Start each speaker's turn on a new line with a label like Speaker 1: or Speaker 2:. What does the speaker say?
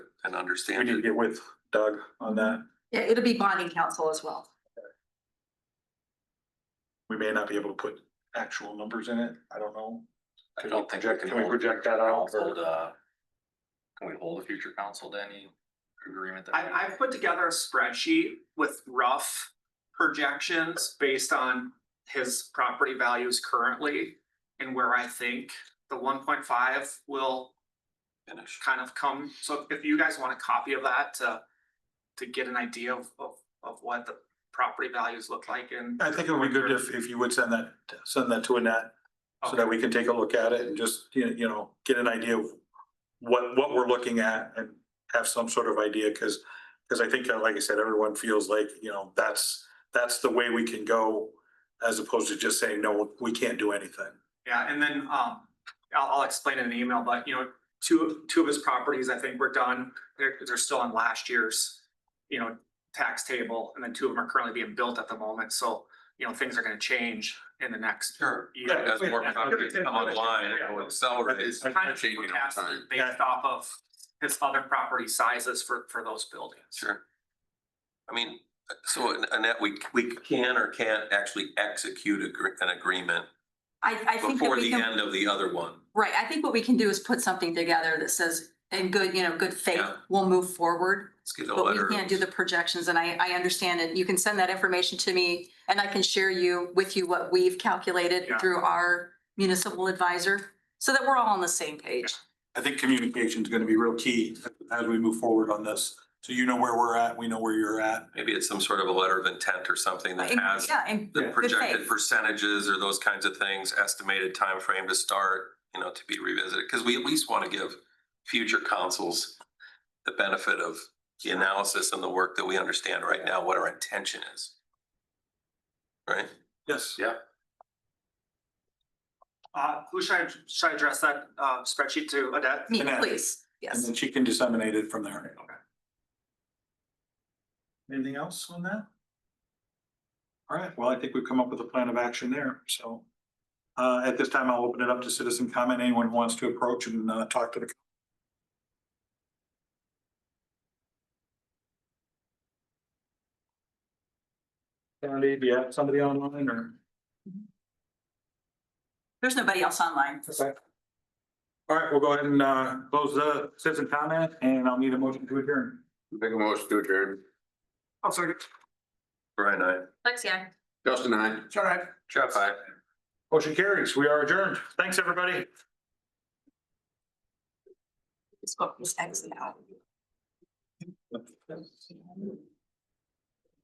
Speaker 1: and
Speaker 2: We
Speaker 1: understand
Speaker 2: need to
Speaker 1: it.
Speaker 2: get with Doug on that.
Speaker 3: Yeah, it'll be bonding council as well.
Speaker 2: We may not be able to put actual numbers in it. I don't know.
Speaker 1: I don't think we can
Speaker 2: Can we
Speaker 1: hold
Speaker 2: project that out?
Speaker 1: council to. Can we hold a future council to any agreement that?
Speaker 4: I, I've put together a spreadsheet with rough projections based on his property values currently and where I think the one point five will
Speaker 1: Finish.
Speaker 4: kind of come. So if you guys want a copy of that to, to get an idea of, of, of what the property values look like and.
Speaker 2: I think it would be good if, if you would send that, send that to Annette, so that we can take a look at it and just, you know, you know, get an idea of what, what we're looking at and have some sort of idea, because, because I think, uh, like I said, everyone feels like, you know, that's, that's the way we can go, as opposed to just saying, no, we can't do anything.
Speaker 4: Yeah, and then, um, I'll, I'll explain in an email, but you know, two, two of his properties, I think were done. They're, they're still on last year's, you know, tax table, and then two of them are currently being built at the moment, so, you know, things are gonna change in the next.
Speaker 1: Sure.
Speaker 4: year.
Speaker 1: As more
Speaker 4: Yeah.
Speaker 1: properties come online,
Speaker 4: Yeah.
Speaker 1: it will accelerate.
Speaker 4: It's kind of
Speaker 1: changing over
Speaker 4: forecasted
Speaker 1: time.
Speaker 4: based off of his other property sizes for, for those buildings.
Speaker 1: Sure. I mean, so Annette, we, we can or can't actually execute agre- an agreement
Speaker 3: I, I think that
Speaker 1: before
Speaker 3: we
Speaker 1: the
Speaker 3: can,
Speaker 1: end of the other one.
Speaker 3: right, I think what we can do is put something together that says, in good, you know, good faith,
Speaker 1: Yeah.
Speaker 3: we'll move forward.
Speaker 1: Let's get a
Speaker 3: But
Speaker 1: letter.
Speaker 3: we can't do the projections and I, I understand it. You can send that information to me and I can share you, with you what we've calculated
Speaker 4: Yeah.
Speaker 3: through our municipal advisor so that we're all on the same page.
Speaker 2: I think communication is gonna be real key as we move forward on this, so you know where we're at, we know where you're at.
Speaker 1: Maybe it's some sort of a letter of intent or something that
Speaker 3: And-
Speaker 1: has
Speaker 3: Yeah, and
Speaker 1: the
Speaker 2: Good
Speaker 1: projected
Speaker 3: faith.
Speaker 1: percentages or those kinds of things, estimated time frame to start, you know, to be revisited. Because we at least want to give future councils the benefit of the analysis and the work that we understand right now, what our intention is. Right?
Speaker 2: Yes.
Speaker 4: Uh, who should I, should I address that, uh, spreadsheet to, Adet?
Speaker 3: me,
Speaker 2: Annette.
Speaker 3: please.
Speaker 2: And
Speaker 3: Yes.
Speaker 2: then she can disseminate it from there.
Speaker 4: Okay.
Speaker 2: Anything else on that? All right, well, I think we've come up with a plan of action there, so. Uh, at this time, I'll open it up to citizen comment. Anyone who wants to approach and, uh, talk to the. Sandy, do you have somebody online or?
Speaker 3: There's nobody else online.
Speaker 2: All right, we'll go ahead and, uh, close the citizen comment and I'll need a motion to adjourn.
Speaker 5: Make a motion to adjourn.
Speaker 4: I'm sorry.
Speaker 1: Brian, I.
Speaker 3: Lexi.
Speaker 5: Justin, I.
Speaker 2: All right.
Speaker 1: Jeff, I.
Speaker 2: Motion carries. We are adjourned. Thanks, everybody.
Speaker 3: This book was exit out.